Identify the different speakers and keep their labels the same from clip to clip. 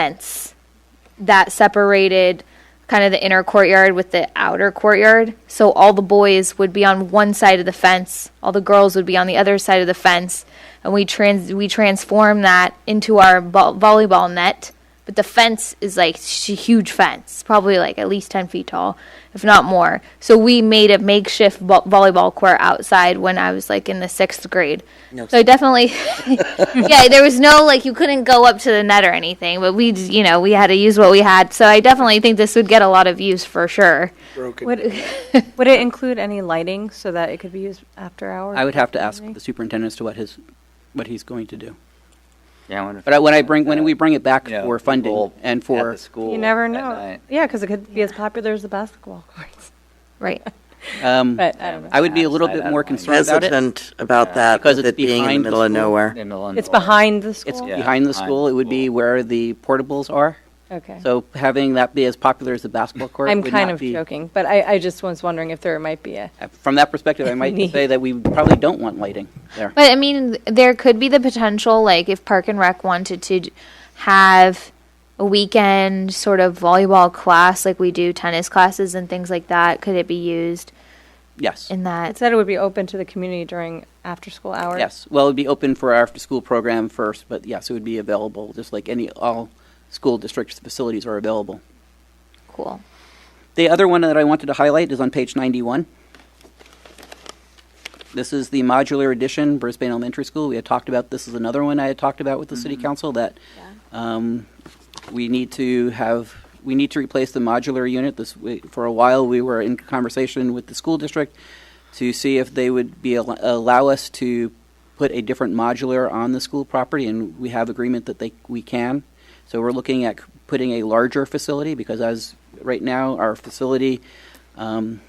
Speaker 1: fence that separated kind of the inner courtyard with the outer courtyard. So all the boys would be on one side of the fence, all the girls would be on the other side of the fence, and we trans we transform that into our vo- volleyball net. But the fence is like sh- huge fence, probably like at least ten feet tall, if not more. So we made a makeshift vo- volleyball court outside when I was like in the sixth grade.
Speaker 2: No
Speaker 1: so I definitely, yeah, there was no like you couldn't go up to the net or anything. But we, just, you know, we had to use what we had. So I definitely think this would get a lot of use for sure.
Speaker 3: broken.
Speaker 4: Would, would it include any lighting so that it could be used after hours?
Speaker 5: I would have to ask the superintendent as to what his, what he's going to do.
Speaker 2: Yeah, I wonder. if-
Speaker 5: But I- when I bring, when
Speaker 2: uh,
Speaker 5: we bring it back
Speaker 2: you know,
Speaker 5: for funding
Speaker 2: people
Speaker 5: and
Speaker 2: at
Speaker 5: for,
Speaker 2: the school
Speaker 4: You never
Speaker 2: at
Speaker 4: know.
Speaker 2: night.
Speaker 4: Yeah, because it could be as popular as the basketball courts.
Speaker 1: Right.
Speaker 5: um,
Speaker 4: But I don't know.
Speaker 5: I would be a little
Speaker 2: Outside, I
Speaker 5: bit
Speaker 2: don't
Speaker 5: more
Speaker 2: mind.
Speaker 5: concerned about it.
Speaker 6: hesitant about that,
Speaker 5: Because
Speaker 6: with
Speaker 5: it's
Speaker 6: it being in
Speaker 5: behind
Speaker 6: the
Speaker 5: the
Speaker 6: middle of
Speaker 5: school.
Speaker 6: nowhere.
Speaker 2: In Milan
Speaker 4: It's
Speaker 2: Boulevard.
Speaker 4: behind the school?
Speaker 5: It's
Speaker 2: Yeah,
Speaker 5: behind the
Speaker 2: behind
Speaker 5: school.
Speaker 2: the
Speaker 5: It would be
Speaker 2: school.
Speaker 5: where the portables are.
Speaker 4: Okay.
Speaker 5: So having that be as popular as the basketball court
Speaker 4: I'm
Speaker 5: would
Speaker 4: kind
Speaker 5: not
Speaker 4: of
Speaker 5: be- uh,
Speaker 4: joking, but I, I just was wondering if there might be a,
Speaker 5: From that perspective, I might
Speaker 4: Neat.
Speaker 5: say that we probably don't want lighting there.
Speaker 1: But I mean, there could be the potential, like if Park and Rec wanted to d- have a weekend sort of volleyball class, like we do tennis classes and things like that. Could it be used
Speaker 5: Yes.
Speaker 1: in
Speaker 4: it
Speaker 1: that?
Speaker 4: said it would be open to the community during after-school hours?
Speaker 5: Yes. Well, it'd be open for our after-school program first, but yes, it would be available, just like any, all school districts' facilities are available.
Speaker 1: Cool.
Speaker 5: The other one that I wanted to highlight is on page 91. This is the modular addition, Brisbane Elementary School. We had talked about, this is another one I had talked about with the city council, that um, we need to have, we need to replace the modular unit. This, we- for a while, we were in conversation with the school district to see if they would be, al- allow us to put a different modular on the school property, and we have agreement that they, we can. So we're looking at c- putting a larger facility, because as, right now, our facility um,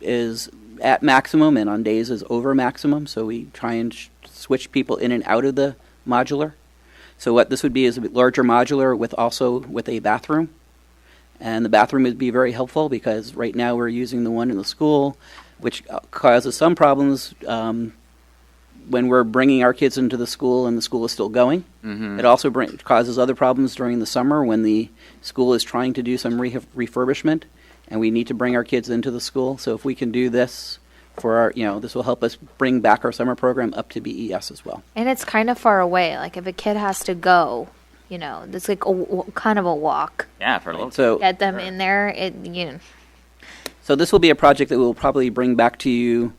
Speaker 5: is at maximum, and on days is over maximum, so we try and sh- switch people in and out of the modular. So what this would be is a larger modular with also with a bathroom. And the bathroom would be very helpful because right now we're using the one in the school, which uh, causes some problems um, when we're bringing our kids into the school and the school is still going.
Speaker 2: Mhm.
Speaker 5: It also bring, causes other problems during the summer when the school is trying to do some re- refurbishment and we need to bring our kids into the school. So if we can do this for our, you know, this will help us bring back our summer program up to BES as well.
Speaker 1: And it's kind of far away. Like if a kid has to go, you know, it's like a w- kind of a walk.
Speaker 2: Yeah, for a little.
Speaker 5: So
Speaker 1: Get them in there. It you know,
Speaker 5: So this will be a project that we'll probably bring back to you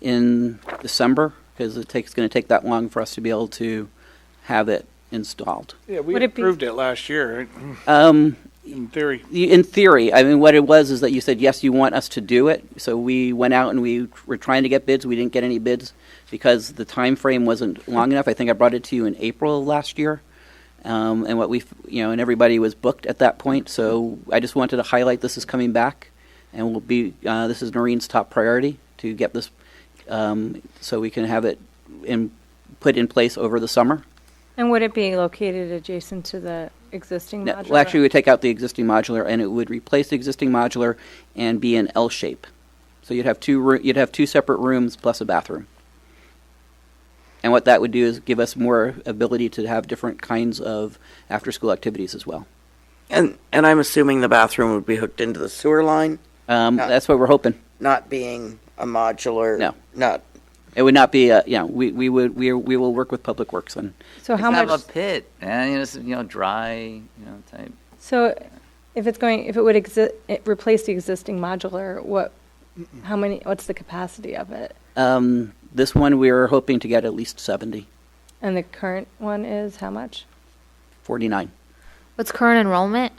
Speaker 5: in December because it takes, going to take that long for us to be able to have it installed.
Speaker 3: Yeah, we
Speaker 4: Would it be-
Speaker 3: approved it last year, right?
Speaker 5: Um,
Speaker 3: in theory.
Speaker 5: y- in theory, I mean, what it was is that you said, yes, you want us to do it. So we went out and we were trying to get bids. We didn't get any bids because the time frame wasn't long enough. I think I brought it to you in April of last year. Um, and what we, f- you know, and everybody was booked at that point. So I just wanted to highlight this is coming back and will be, uh, this is Noreen's top priority to get this, um, so we can have it in, put in place over the summer.
Speaker 4: And would it be located adjacent to the existing
Speaker 5: No,
Speaker 4: modular?
Speaker 5: Well, actually, we take out the existing modular, and it would replace the existing modular and be an L shape. So you'd have two, roo- you'd have two separate rooms plus a bathroom. And what that would do is give us more ability to have different kinds of after-school activities as well.
Speaker 6: And, and I'm assuming the bathroom would be hooked into the sewer line,
Speaker 5: Um,
Speaker 6: Yeah.
Speaker 5: That's what we're hoping.
Speaker 6: not being a modular.
Speaker 5: No.
Speaker 6: Not,
Speaker 5: It would not be, a- you know, we, we would, we, we will work with Public Works on
Speaker 4: So how
Speaker 2: Have
Speaker 4: much,
Speaker 2: a pit, and you know, it's, you know, dry, you know, type.
Speaker 4: so if it's going, if it would exi- it replace the existing modular, what, how many, what's the capacity of it?
Speaker 5: Um, this one, we are hoping to get at least 70,
Speaker 4: And the current one is how much?
Speaker 5: 49,
Speaker 1: what's current enrollment?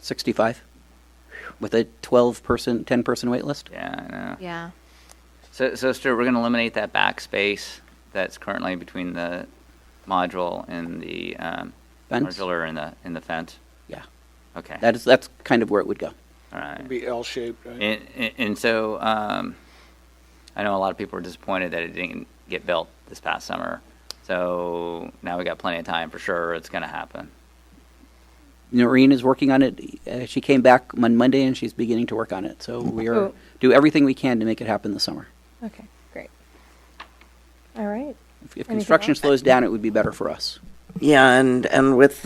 Speaker 5: 65, with a 12-person, 10-person wait list.
Speaker 2: Yeah, I know.
Speaker 1: Yeah.
Speaker 2: So, so Stuart, we're going to eliminate that back space that's currently between the module and the um,
Speaker 5: Fence.
Speaker 2: modular and the and the fence.
Speaker 5: Yeah.
Speaker 2: Okay.
Speaker 5: That is, that's kind of where it would go.
Speaker 2: All right.
Speaker 3: It'd be L-shaped, right?
Speaker 2: And, and- and so um, I know a lot of people were disappointed that it didn't get built this past summer. So now we got plenty of time for sure. It's going to happen.
Speaker 5: Noreen is working on it. Uh, she came back on Monday and she's beginning to work on it. So we are
Speaker 4: Oh.
Speaker 5: do everything we can to make it happen this summer.
Speaker 4: Okay, great. All right.
Speaker 5: If, if
Speaker 4: Anything
Speaker 5: construction
Speaker 4: else?
Speaker 5: slows down, it would be better for us.
Speaker 6: Yeah, and, and with